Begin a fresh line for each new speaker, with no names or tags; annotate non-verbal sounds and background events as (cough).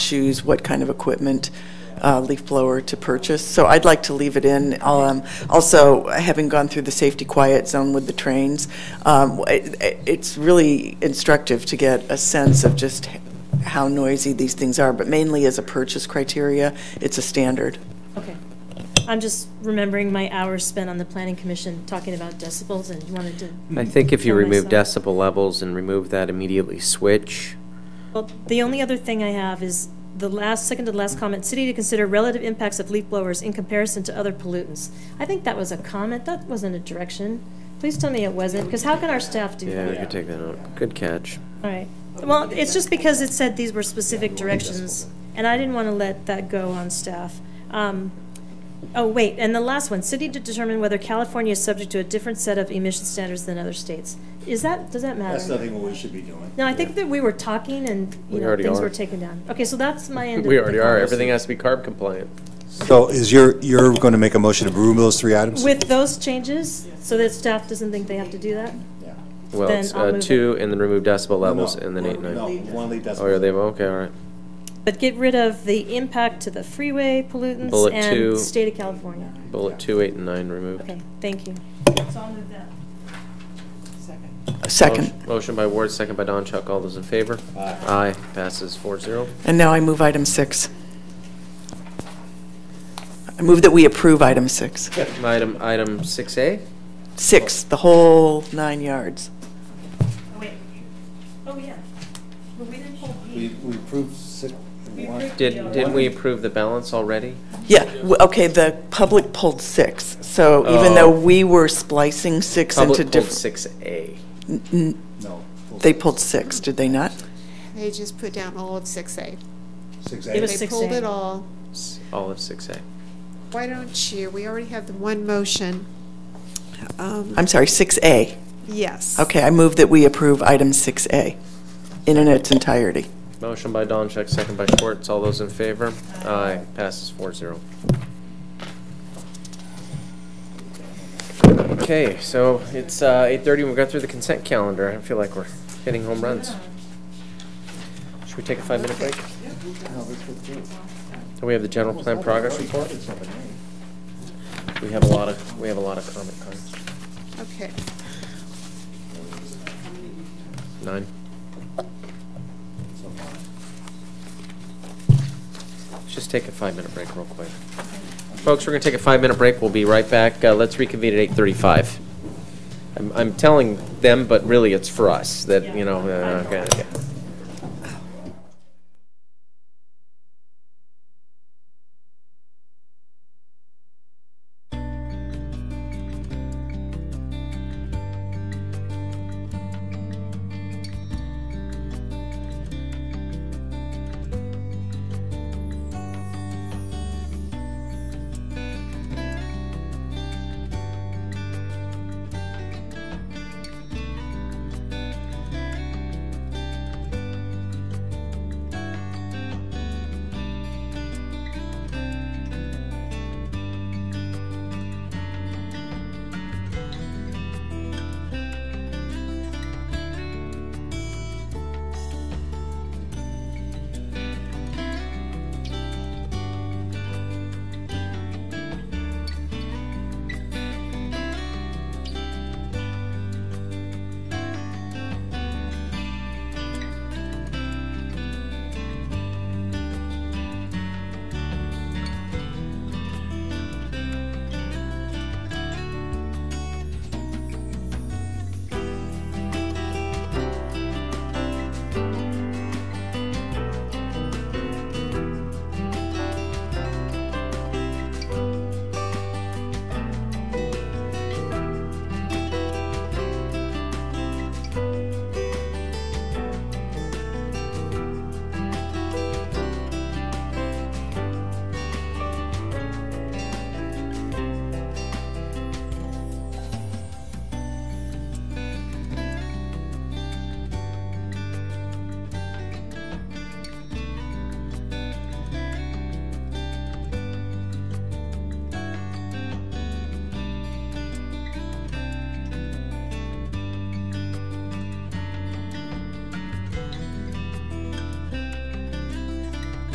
choose what kind of equipment, uh, leaf blower to purchase. So I'd like to leave it in. I'll, um, Also, having gone through the safety quiet zone with the trains, um, it- it's really instructive to get a sense of just how noisy these things are, but mainly as a purchase criteria, it's a standard.
Okay. I'm just remembering my hours spent on the planning commission talking about decibels and wanted to,
I think if you
For
remove
myself.
decibel levels and remove that immediately switch,
well, the only other thing I have is the last, second to the last comment, city to consider relative impacts of leaf blowers in comparison to other pollutants. I think that was a comment, that wasn't a direction. Please tell me it wasn't, because how can our staff do
yeah,
that?
we could take that out. Good catch.
All right. Well, it's just because it said these were specific directions, and I didn't want to let that go on staff. Um, Oh, wait, and the last one, city to determine whether California is subject to a different set of emission standards than other states. Is that, does that matter?
That's nothing what we should be doing.
No, I think that we were talking and, you
We
know,
already
things
are.
were taken down. Okay, so that's my end of the.
(laughs) We already are.
conversation.
Everything has to be carb compliant.
So is your, you're going to make a motion to remove those three items?
With those changes, so that staff doesn't think they have to do that?
Yeah.
Well,
Then
it's
I'll
uh,
move
two, and then remove decibel levels,
No,
and then
no,
eight, nine.
No,
Oh,
one lead decibel.
yeah, they, okay, all right.
But get rid of the impact to the freeway pollutants
Bullet two.
and state of California.
Bullet two, eight, and nine removed.
Okay, thank you.
Second.
Motion- Motion by Ward, second by Don Chuck. All those in favor? Aye. Passes four zero.
And now I move item six. I move that we approve item six.
Item, item six A?
Six, the whole nine yards.
Oh, wait. Oh, yeah. But we didn't pull
We,
B.
we approved six, one.
Did, didn't we approve the balance already?
Yeah, w- okay, the public pulled six, so even though
Oh.
we were splicing six into
Public pulled
different.
six A.
No. full
They
six.
pulled six, did they not?
They just put down all of six A.
Six
It was
A.
They pulled
6A.
it all.
All of six A.
Why don't you, we already have the one motion. Um,
I'm sorry, six A.
Yes.
Okay, I move that we approve item six A in its entirety.
Motion by Doncheck, second by Schwartz. All those in favor? Aye. Passes four zero. Okay, so it's uh, 8:30, we've got through the consent calendar. I feel like we're hitting home runs. Should we take a five-minute break? And we have the general plan progress report. We have a lot of, we have a lot of comment cards.
Okay.
Nine. Let's just take a five-minute break real quick. Folks, we're going to take a five-minute break. We'll be right back. Uh, Let's reconvene at 8:35. I'm- I'm telling them, but really it's for us, that, you know, uh, okay. okay.